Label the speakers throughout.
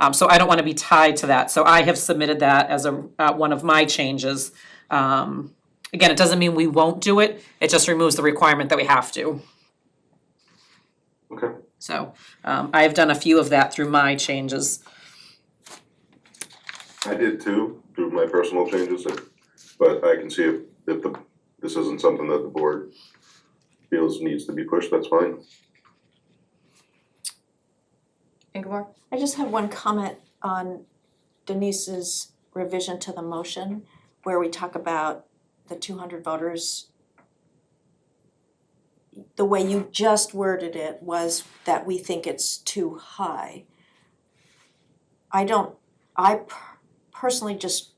Speaker 1: Um, so I don't want to be tied to that. So I have submitted that as a, uh, one of my changes. Um, again, it doesn't mean we won't do it, it just removes the requirement that we have to.
Speaker 2: Okay.
Speaker 1: So, um, I have done a few of that through my changes.
Speaker 2: I did too, through my personal changes, and- but I can see if, if the, this isn't something that the board feels needs to be pushed, that's fine.
Speaker 1: Ingeborg?
Speaker 3: I just have one comment on Denise's revision to the motion where we talk about the two hundred voters. The way you just worded it was that we think it's too high. I don't, I per- personally just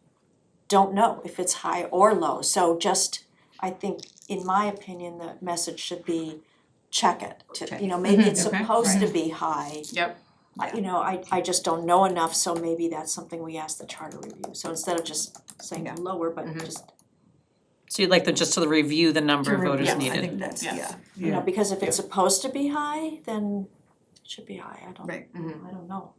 Speaker 3: don't know if it's high or low, so just, I think, in my opinion, the message should be check it. to- You know, maybe it's
Speaker 1: Okay.
Speaker 3: supposed to be high,
Speaker 1: Yep.
Speaker 3: I- you know, I I just don't know enough, so maybe that's something we ask the charter review, so instead of just saying
Speaker 4: Yeah.
Speaker 3: lower, but
Speaker 1: Mhm.
Speaker 3: just,
Speaker 1: So you'd like them just to review the number of
Speaker 3: To review,
Speaker 1: voters
Speaker 3: yeah, I
Speaker 1: needed?
Speaker 4: I think that's,
Speaker 5: Yeah.
Speaker 4: yeah,
Speaker 3: you know, because if it's supposed to be high, then it should be high, I don't, I
Speaker 4: right.
Speaker 5: Mm-hmm.
Speaker 1: Mhm.
Speaker 3: don't know.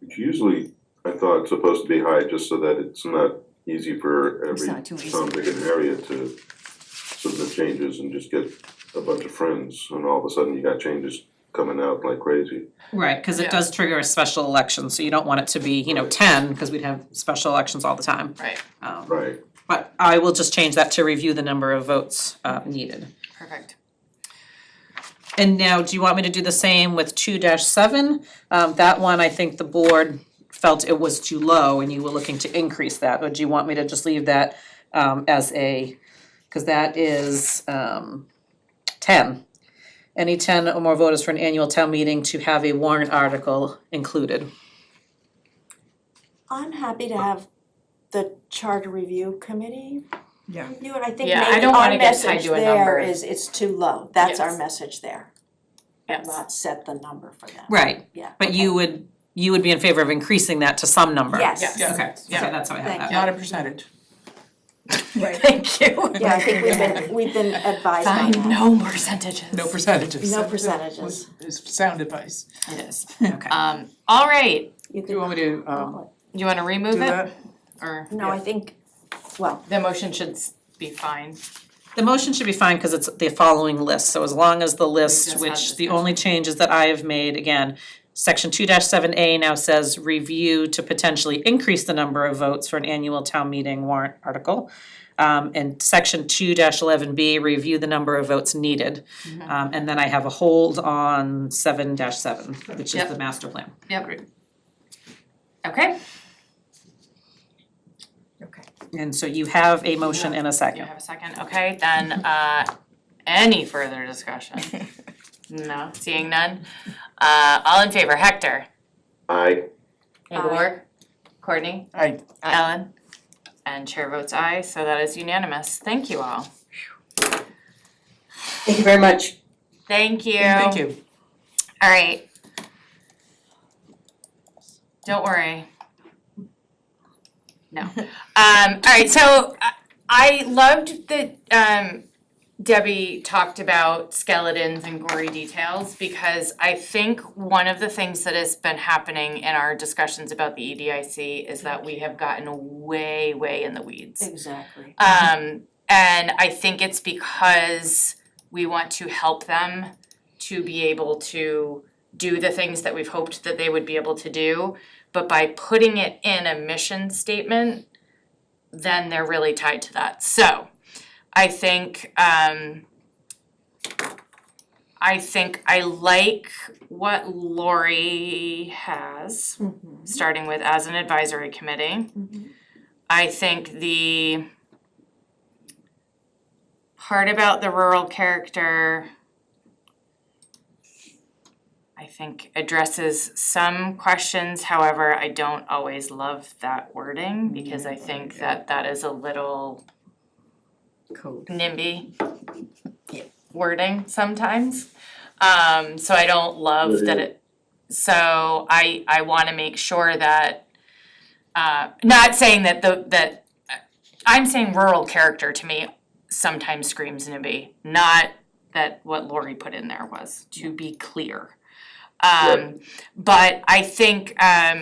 Speaker 2: It's usually, I thought, supposed to be high, just so that it's not easy for
Speaker 4: It's
Speaker 2: every
Speaker 4: not too easy.
Speaker 2: town big an area to submit changes and just get a bunch of friends, and all of a sudden you got changes coming out like crazy.
Speaker 1: Right, cause it
Speaker 5: Yeah.
Speaker 1: does trigger a special election, so you don't want it to be, you know, ten, cause we'd have special elections all the time.
Speaker 5: Right.
Speaker 4: Oh.
Speaker 1: Um,
Speaker 2: Right,
Speaker 1: but I will just change that to review the number of votes, uh, needed.
Speaker 5: Perfect.
Speaker 1: And now, do you want me to do the same with two seven? Um, that one, I think the board felt it was too low and you were looking to increase that, or do you want me to just leave that um as a, cause that is um ten. Any ten or more voters for an annual town meeting to have a warrant article included.
Speaker 3: I'm happy to have the charter review committee
Speaker 4: Yeah.
Speaker 3: review it, I think
Speaker 5: Yeah, I
Speaker 3: maybe
Speaker 5: don't
Speaker 3: our
Speaker 5: wanna get tied
Speaker 3: message
Speaker 5: to a number.
Speaker 3: there is, it's too low, that's our
Speaker 5: Yes.
Speaker 3: message there.
Speaker 5: Yes.
Speaker 3: Not set the number for that,
Speaker 1: Right.
Speaker 3: yeah.
Speaker 1: But you would, you would be in favor of increasing that to some number?
Speaker 3: Yes.
Speaker 1: Okay,
Speaker 5: Yeah.
Speaker 1: okay,
Speaker 5: Yeah.
Speaker 1: that's how I
Speaker 3: Thank
Speaker 1: have that.
Speaker 5: Not a percentage.
Speaker 4: Right.
Speaker 5: Thank you.
Speaker 3: Yeah, I think we've been, we've been advised on
Speaker 5: Find
Speaker 3: that.
Speaker 5: no percentages.
Speaker 6: No percentages.
Speaker 3: No percentages,
Speaker 6: Is sound advice.
Speaker 5: It is.
Speaker 1: Okay.
Speaker 5: Um, all right,
Speaker 3: you
Speaker 6: Do
Speaker 3: can,
Speaker 6: you want me to, um,
Speaker 5: you wanna remove
Speaker 6: do
Speaker 5: it
Speaker 6: that?
Speaker 5: or
Speaker 3: no, I think, well,
Speaker 5: the motion should s- be fine?
Speaker 1: The motion should be fine because it's the following list, so as long as the
Speaker 5: just
Speaker 1: list,
Speaker 5: had
Speaker 1: which the
Speaker 5: discussion.
Speaker 1: only changes that I have made, again, section two seven A now says review to potentially increase the number of votes for an annual town meeting warrant article. Um, and section two eleven B, review the number of votes needed. Um, and then I have a hold on seven seven, which is
Speaker 5: Yep.
Speaker 1: the master plan.
Speaker 5: Yep. Okay,
Speaker 1: And so you have a motion and a
Speaker 5: you
Speaker 1: second.
Speaker 5: have a second, okay, then uh any further discussion? No, seeing none, uh all in favor, Hector?
Speaker 2: I,
Speaker 5: Ingeborg? Courtney?
Speaker 6: Aye.
Speaker 5: Ellen? And chair votes aye, so that is unanimous, thank you all.
Speaker 7: Thank you very much.
Speaker 5: Thank you.
Speaker 6: Thank you.
Speaker 5: All right. Don't worry. No. Um, all right, so I- I loved that um, Debbie talked about skeletons and gory details because I think one of the things that has been happening in our discussions about the E EDIC is that we have gotten way, way in the weeds.
Speaker 3: exactly.
Speaker 5: Um, and I think it's because we want to help them to be able to do the things that we've hoped that they would be able to do. But by putting it in a mission statement, then they're really tied to that. So I think, um, I think I like what Lori has, starting with as an advisory committee. I think the part about the rural character I think addresses some questions, however, I don't always love that wording because I think that that is a little
Speaker 4: Code.
Speaker 5: NIMBY
Speaker 4: Yeah.
Speaker 5: wording sometimes. Um, so I don't love that it, so I, I wanna make sure that, uh, not saying that the, that, I'm saying rural character to me sometimes screams NIMBY, not that what Lori put in there was, to be clear. Um, but I think, um,